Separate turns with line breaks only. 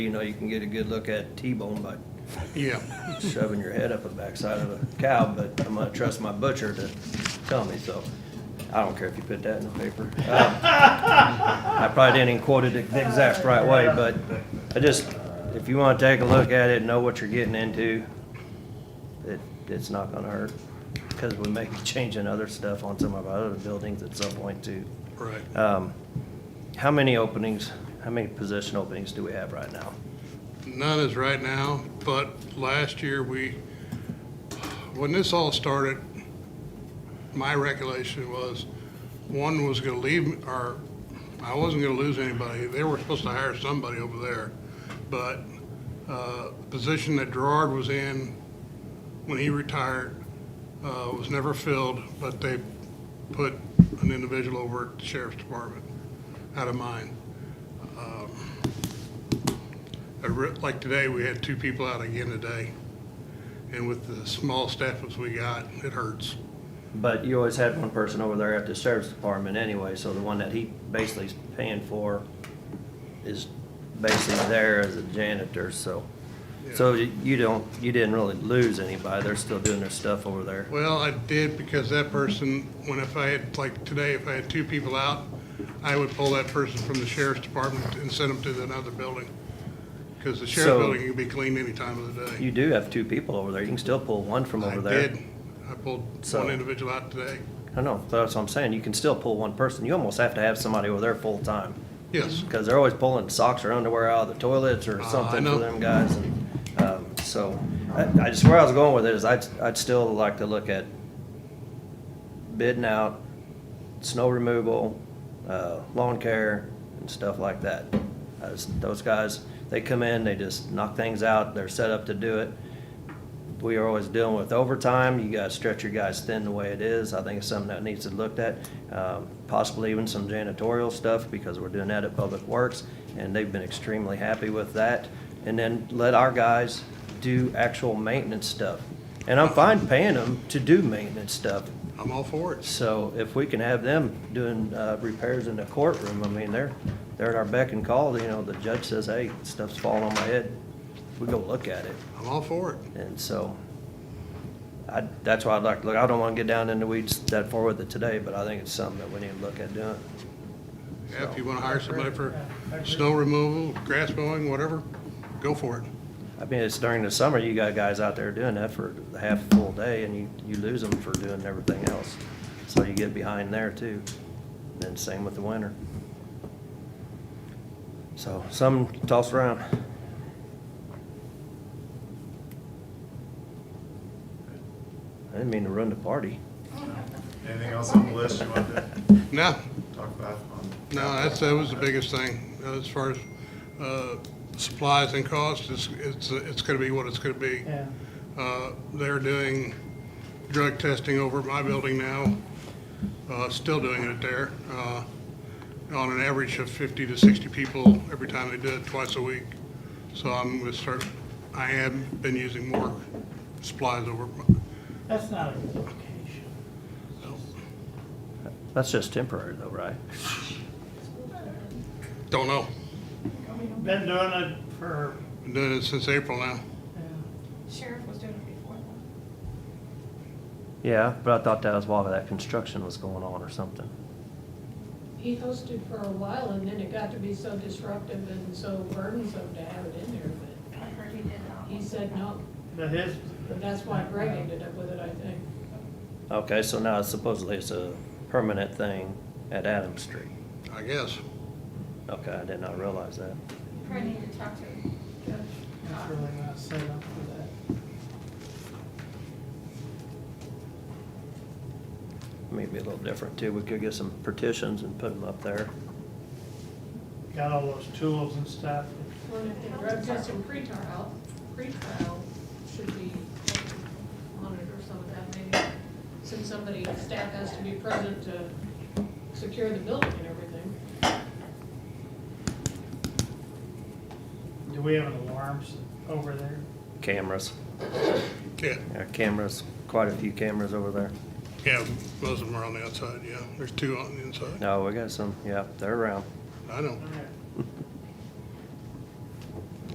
You know, you can get a good look at T-bone by
Yeah,
shoving your head up the backside of a cow, but I'm gonna trust my butcher to tell me, so I don't care if you put that in the paper. Um, I probably didn't quote it the exact right way, but I just, if you wanna take a look at it, know what you're getting into, it, it's not gonna hurt, because we may be changing other stuff on some of our other buildings at some point too.
right.
Um, How many openings, how many position openings do we have right now?
None is right now, but last year we, when this all started, my recollection was one was gonna leave, or I wasn't gonna lose anybody. They were supposed to hire somebody over there. But, uh, the position that Gerard was in when he retired, uh, was never filled, but they put an individual over at the sheriff's department out of mine. I re- Like today, we had two people out again today. And with the small staff as we got, it hurts.
But you always had one person over there at the sheriff's department anyway, so the one that he basically is paying for is basically there as a janitor, so. So you you don't, you didn't really lose anybody, they're still doing their stuff over there.
Well, I did because that person, when if I had, like today, if I had two people out, I would pull that person from the sheriff's department and send them to another building. Because the
So-
sheriff's building can be cleaned any time of the day.
You do have two people over there, you can still pull one from
I
over there.
did. I pulled
So-
one individual out today.
I know, that's what I'm saying, you can still pull one person, you almost have to have somebody over there full-time.
Yes,
Because they're always pulling socks or underwear out of the toilets or
Uh, I
something for
know.
them guys. And um, So I I just, where I was going with it is I'd, I'd still like to look at bidding out, snow removal, uh, lawn care and stuff like that. I just- Those guys, they come in, they just knock things out, they're set up to do it. We are always dealing with overtime. You gotta stretch your guys thin the way it is. I think it's something that needs to be looked at. Um, Possibly even some janitorial stuff, because we're doing that at Public Works, and they've been extremely happy with that. And then let our guys do actual maintenance stuff. And I'm fine paying them to do maintenance stuff.
I'm all for it.
So if we can have them doing uh, repairs in the courtroom, I mean, they're, they're at our beck and call, you know, the judge says, hey, stuff's falling on my head. We go look at it.
I'm all for it.
And so, I, that's why I'd like, to look, I don't wanna get down in the weeds that far with it today, but I think it's something that we need to look at doing.
Yeah, If you want to hire somebody for snow removal, grass mowing, whatever, go for it.
I mean, it's during the summer, you got guys out there doing that for half a full day, and you, you lose them for doing everything else. So you get behind there too, and same with the winter. So, some toss around. I didn't mean to run the party.
Anything else on the list you wanted to
Now,
talk about?
No, that's, that was the biggest thing, uh, as far as, uh, supplies and costs, it's, it's, it's gonna be what it's gonna be.
Yeah,
Uh, they're doing drug testing over at my building now, uh, still doing it there, uh, on an average of fifty to sixty people every time they do it, twice a week. So I'm gonna start, I have been using more supplies over,
that's not a good location.
That's just temporary though, right?
don't know,
Been doing it for,
been doing it since April now.
yeah,
Sheriff was doing it before.
Yeah, but I thought that was while that construction was going on or something.
He hosted for a while and then it got to be so disruptive and so burdensome to have it in there,
I heard he did
but
that
he
one.
said no.
but his,
But that's why Greg ended up with it, I think.
Okay, so now supposedly it's a permanent thing at Adams Street.
I guess.
Okay, I did not realize that.
Probably need to talk to Judge
it's
Cox.
really not set up for that.
Maybe a little different too. We could get some partitions and put them up there.
Got all those tools and stuff.
Well, if the drug test and pre-trial, pre-trial should be monitor some of that maybe. Since somebody, staff has to be present to secure the building and everything.
Do we have an alarms over there?
Cameras.
Yeah,
Yeah, cameras, quite a few cameras over there.
yeah, most of them are on the outside, yeah, there's two on the inside,
Oh,
No, we got some, yeah, they're around.
I know.